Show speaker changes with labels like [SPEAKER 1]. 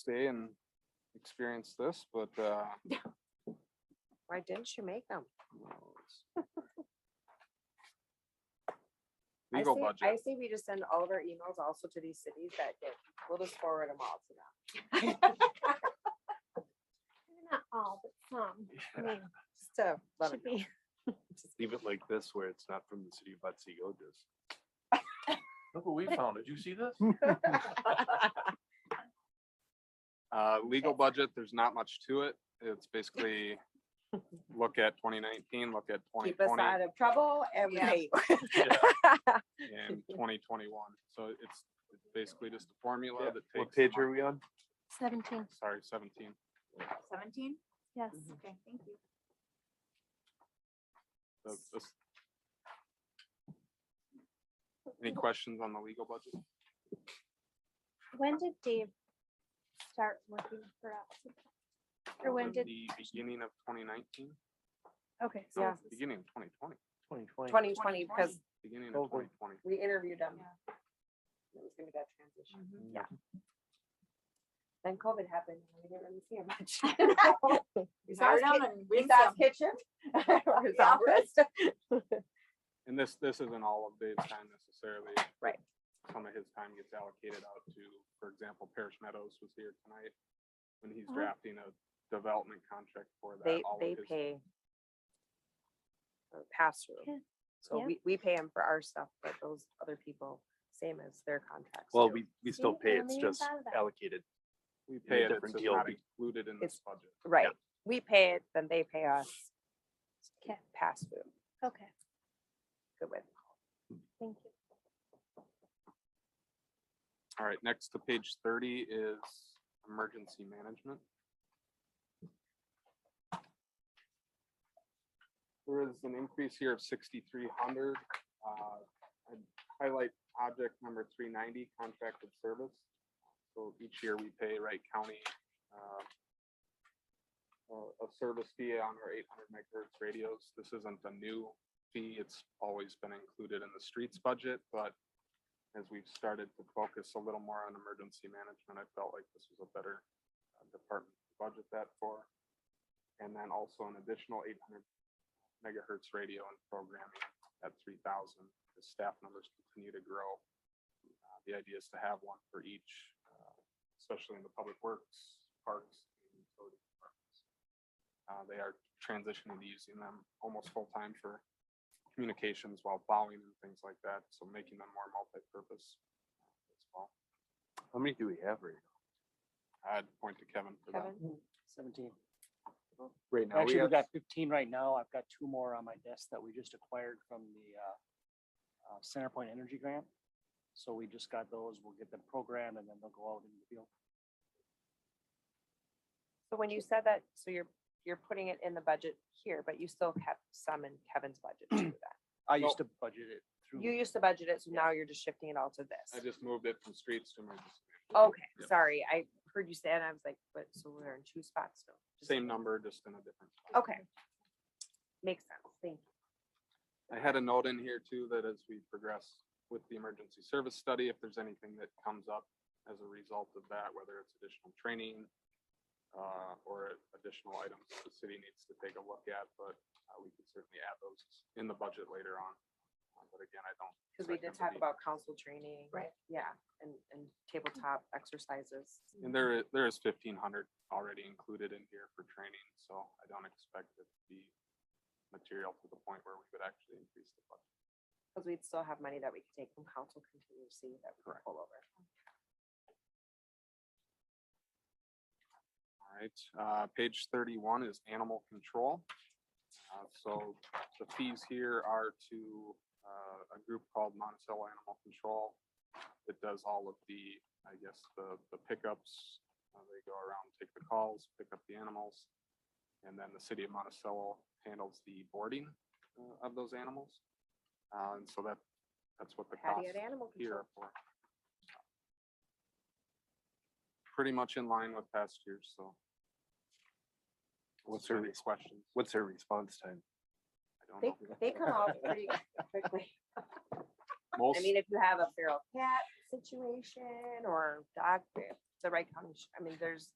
[SPEAKER 1] stay and experience this, but, uh,
[SPEAKER 2] Why didn't you make them?
[SPEAKER 1] no, it's- Legal
[SPEAKER 2] I
[SPEAKER 1] budget,
[SPEAKER 2] say we just send all of our emails also to these cities that get, we'll just forward them all to them.
[SPEAKER 3] Not all, but
[SPEAKER 2] Just
[SPEAKER 3] some. I mean,
[SPEAKER 2] to let 'em
[SPEAKER 3] should be.
[SPEAKER 4] Leave it like this where it's not from the city of Butsy Otis. Look what we found. Did you see this?
[SPEAKER 1] uh, legal budget, there's not much to it. It's basically look at twenty nineteen, look at twenty
[SPEAKER 2] keep us
[SPEAKER 1] twenty
[SPEAKER 2] out of trouble and we
[SPEAKER 3] Yeah.
[SPEAKER 2] pay you.
[SPEAKER 4] Yeah.
[SPEAKER 1] and twenty twenty-one. So it's it's basically just a formula that takes.
[SPEAKER 4] What
[SPEAKER 1] the
[SPEAKER 4] page
[SPEAKER 1] mon-
[SPEAKER 4] are we on?
[SPEAKER 3] Seventeen,
[SPEAKER 1] Sorry, seventeen.
[SPEAKER 5] Seventeen? Mm-hmm.
[SPEAKER 3] yes.
[SPEAKER 5] Okay, thank you.
[SPEAKER 1] So this- Any questions on the legal budget?
[SPEAKER 3] When did Dave start working for us? Or when
[SPEAKER 1] In
[SPEAKER 3] did,
[SPEAKER 1] The beginning of twenty nineteen,
[SPEAKER 3] okay. so
[SPEAKER 2] Yeah.
[SPEAKER 3] this is-
[SPEAKER 1] beginning of twenty twenty,
[SPEAKER 4] Twenty twenty.
[SPEAKER 2] Twenty twenty, because
[SPEAKER 1] beginning
[SPEAKER 4] Over.
[SPEAKER 1] of twenty twenty.
[SPEAKER 2] we interviewed them.
[SPEAKER 5] Yeah.
[SPEAKER 2] It was gonna be that transition.
[SPEAKER 5] Mhm.
[SPEAKER 2] Then COVID happened. and We didn't really see him much. We saw
[SPEAKER 5] Hire
[SPEAKER 2] his
[SPEAKER 5] them
[SPEAKER 2] kit-
[SPEAKER 5] and
[SPEAKER 2] we
[SPEAKER 5] win
[SPEAKER 2] saw his
[SPEAKER 5] some.
[SPEAKER 2] kitchen. or his
[SPEAKER 5] The
[SPEAKER 2] office.
[SPEAKER 1] And this, this isn't all of Dave's time necessarily.
[SPEAKER 2] Right.
[SPEAKER 1] Some of his time gets allocated out to, for example, Parish Meadows was here tonight when he's
[SPEAKER 3] Uh-huh.
[SPEAKER 1] drafting a development contract for that.
[SPEAKER 2] They,
[SPEAKER 1] all of
[SPEAKER 2] they
[SPEAKER 1] his-
[SPEAKER 2] pay. Pass
[SPEAKER 3] Yeah.
[SPEAKER 2] through. So
[SPEAKER 3] Yeah.
[SPEAKER 2] we, we pay them for our stuff, but those other people, same as their contracts.
[SPEAKER 4] Well,
[SPEAKER 2] too.
[SPEAKER 4] we, we still
[SPEAKER 3] See, I
[SPEAKER 4] pay.
[SPEAKER 3] never
[SPEAKER 4] It's
[SPEAKER 3] even
[SPEAKER 4] just
[SPEAKER 3] thought of that.
[SPEAKER 4] allocated.
[SPEAKER 1] We
[SPEAKER 4] a
[SPEAKER 1] pay it, it's
[SPEAKER 4] different
[SPEAKER 1] just
[SPEAKER 4] deal
[SPEAKER 1] not
[SPEAKER 4] be-
[SPEAKER 1] included in this budget.
[SPEAKER 2] Right, we pay it, then they pay us.
[SPEAKER 3] Okay.
[SPEAKER 2] Pass through,
[SPEAKER 3] Okay,
[SPEAKER 2] good way.
[SPEAKER 3] thank you.
[SPEAKER 1] All right, next to page thirty is emergency management. There is an increase here of sixty-three hundred. Uh, Highlight object number three ninety, contracted service. So each year we pay Wright County uh, a a service fee on our eight hundred megahertz radios. This isn't a new fee. It's always been included in the streets budget, but as we've started to focus a little more on emergency management, I felt like this was a better uh, department to budget that for. And then also an additional eight hundred megahertz radio and programming at three thousand, the staff numbers continue to grow. Uh, The idea is to have one for each, uh, especially in the public works, parks, and utility departments. Uh, They are transitioning to using them almost full-time for communications while plowing and things like that, so making them more multi-purpose uh, as well.
[SPEAKER 4] How many do we have right
[SPEAKER 1] I'd point to Kevin for that.
[SPEAKER 2] Kevin,
[SPEAKER 6] Seventeen.
[SPEAKER 4] now? Right now, we
[SPEAKER 6] Actually, we
[SPEAKER 4] have,
[SPEAKER 6] got fifteen right now. I've got two more on my desk that we just acquired from the uh, uh, Centerpoint Energy Grant. So we just got those. We'll get them programmed and then they'll go out in the field.
[SPEAKER 2] so when you said that, so you're, you're putting it in the budget here, but you still kept some in Kevin's budget to do that.
[SPEAKER 6] I used to budget it
[SPEAKER 2] You
[SPEAKER 6] through,
[SPEAKER 2] used to budget it, so now you're just shifting it all to
[SPEAKER 1] I
[SPEAKER 2] this.
[SPEAKER 1] just moved it from streets to emergency.
[SPEAKER 2] Okay,
[SPEAKER 1] Yep.
[SPEAKER 2] sorry, I heard you say it, and I was like, but, so we're in two spots now. Just-
[SPEAKER 1] Same number, just in a different. spot.
[SPEAKER 2] Okay. Makes sense, thank you.
[SPEAKER 1] I had a note in here too, that as we progress with the emergency service study, if there's anything that comes up as a result of that, whether it's additional training uh, or additional items that the city needs to take a look at, but uh, we can certainly add those in the budget later on. Uh, But again, I don't.
[SPEAKER 2] Because we
[SPEAKER 1] expect them to
[SPEAKER 2] did talk
[SPEAKER 1] be-
[SPEAKER 2] about council training.
[SPEAKER 5] Right.
[SPEAKER 2] Yeah, and, and tabletop
[SPEAKER 1] Mm-hmm.
[SPEAKER 2] exercises.
[SPEAKER 1] And there, i- there is fifteen hundred already included in here for training, so I don't expect it to be material to the point where we would actually increase the budget.
[SPEAKER 2] Because we'd still have money that we could take from council contingency that we could pull over.
[SPEAKER 1] All right, uh, page thirty-one is animal control. Uh, so the fees here are to, uh, a group called Monticello Animal Control. that does all of the, I guess, the, the pickups. Uh, They go around, take the calls, pick up the animals. And then the city of Monticello handles the boarding, uh, of those animals. Uh, and so that, that's what the cost
[SPEAKER 2] Patty at animal control.
[SPEAKER 1] here for. Pretty much in line with past years, so.
[SPEAKER 4] What's
[SPEAKER 1] there
[SPEAKER 4] your
[SPEAKER 1] any
[SPEAKER 4] resp-
[SPEAKER 1] questions?
[SPEAKER 4] what's our response time?
[SPEAKER 1] I don't
[SPEAKER 2] They,
[SPEAKER 1] know.
[SPEAKER 2] they come out pretty quickly. I
[SPEAKER 1] Most,
[SPEAKER 2] mean, if you have a feral cat situation or dog, the Wright County, sh- I mean, there's